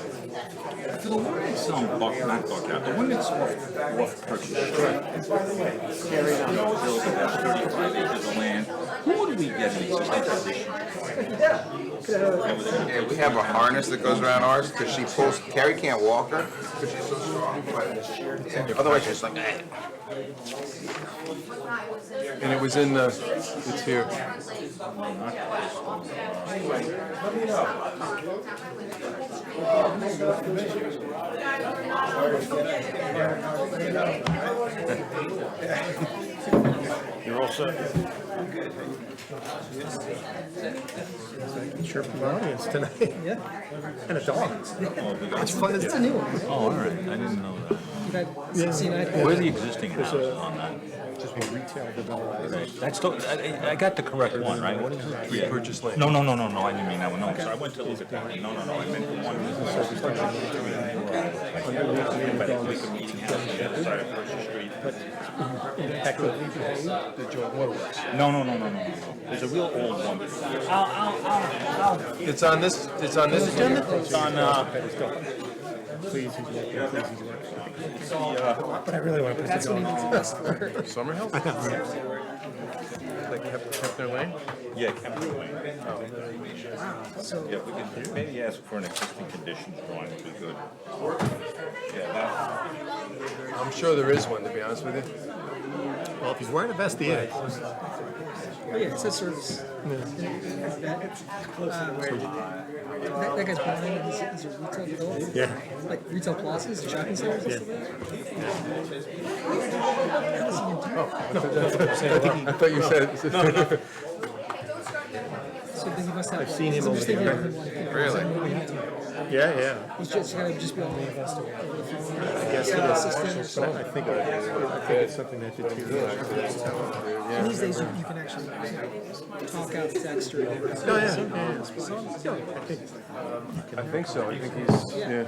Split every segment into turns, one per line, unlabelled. For the one that's um, buck, not buck out, the one that's off, off purchase. Correct. You know, built about thirty-five acres of land, who do we get in existing position?
Yeah, we have a harness that goes around ours because she pulls. Carrie can't walk her because she's so strong. But yeah, otherwise, she's like, eh.
And it was in the, it's here.
You're all set.
Sure, from the audience tonight. Yeah. And a dog. It's fun. It's a new one.
Oh, all right, I didn't know that.
You've had 69.
Where are the existing houses on that?
Just be retail developers.
That's, the- I, I- I got the correct one, right? What is it?
We purchased land.
No, no, no, no, no, I didn't mean that one, no, I'm sorry, I went to look at that one, no, no, no, I meant the one. But it's like a meeting house on the other side of Percy Street.
The joint waterworks.
No, no, no, no, no, no, there's a real old one. I'll, I'll, I'll, I'll.
It's on this, it's on this agenda?
It's on, uh,
Please, he's working. Please, he's working.
the, uh,
But I really want to put the dog on.
Summer Hill? Like Kep- Kepner Lane?
yeah, Kemper Lane. Yeah, we can maybe ask for an existing conditions drawing would be good. Yeah, that.
I'm sure there is one, to be honest with you.
Well, if he's wearing a vest, he is.
Oh, yeah, it says service. That, um, that, that guy's behind, he's, he's a retail developer.
Yeah.
Like retail plazas, shopping centers, and stuff like that.
I thought you said,
So then he must have. I've
seen him over here.
really?
Yeah, yeah.
He's just gotta just be on the investor.
I guess it is. But I I think, it is. I think it's something that deteriorates.
And these days, you, you can actually you know, talk out text or.
Oh, yeah, yeah, yeah.
I think so, I think he's, yeah.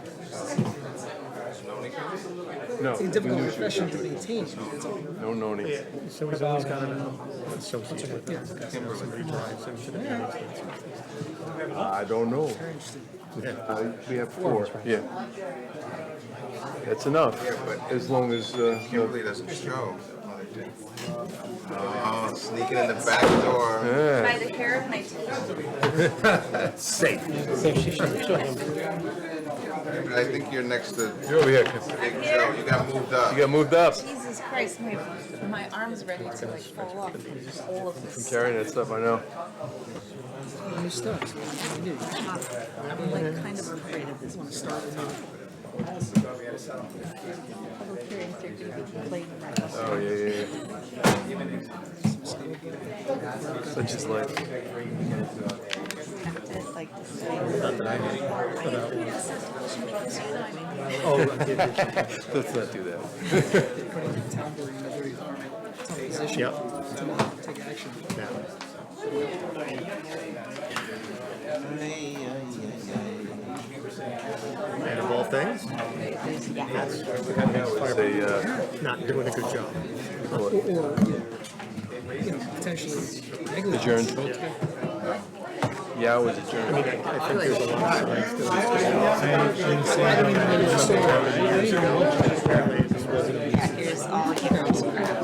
No,
It's a difficult profession to maintain. It's all-
no noni.
So he's always got um, an associate with
Yeah.
him. Somebody drives him to the
I don't know. I- We have four, yeah. That's enough, as long as, uh, no-
Kimberly doesn't show. Oh, sneaking in the back door.
By the hair of my teeth.
But I think you're next to
you're over here, 'cause
Big Joe. You got moved up.
you got moved up.
Jesus Christ, my, my arm's ready to like fall off from all of this.
Carrying that stuff, I know.
New stuff. New.
I'm like kind of afraid of this one. Start Public hearings, they're gonna be late.
Oh, yeah, yeah, yeah. Such is life.
Have to like decide. Why you doing this to me? Because you know I'm in here.
Let's not do that.
Put it in town where you know where you are. Tough position.
Yep.
To not take action.
And of all things,
It's a, uh,
not doing a good job.
Or, or, you know, you know, potentially
Adjourned.
negligence.
yeah, it was adjourned.
I mean, I I think there's a lot of things that
I mean, maybe it's so-
Yeah, here's all the heroes.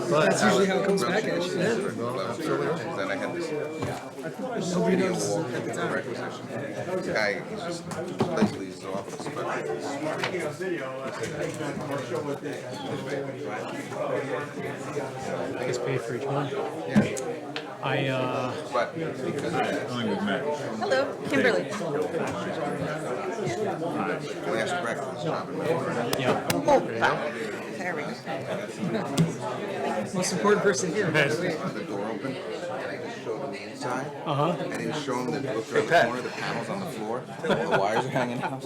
That's usually how it comes back at you.
Then I had this video wall requisition. Guy, he's just completely his office, but
I guess pay for each one. I, uh,
but because of that,
I think we've met.
Hello, Kimberly.
last breakfast, Robin,
yeah,
Oh, there we go. Most important person here. by the way.
the door open, and I just showed him the inside.
uh-huh.
I didn't show him the look around the corner, the panels on the floor, the wires are hanging out.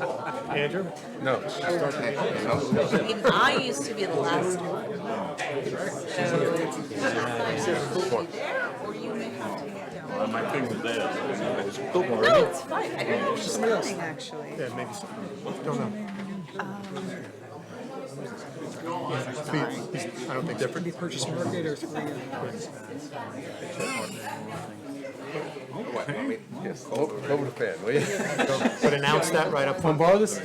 Andrew?
No.
No,
Even I used to be the last one. So, either there or you may have to get down.
Uh, My thing was there, so I mean, I was- don't worry.
No, it's fine. I don't know. She's coming actually.
Yeah, maybe so. I don't think
Could
different.
be purchase market or something.
What, want me-
Yes, over the fan, will you?
But announce that right up front. Borrow this?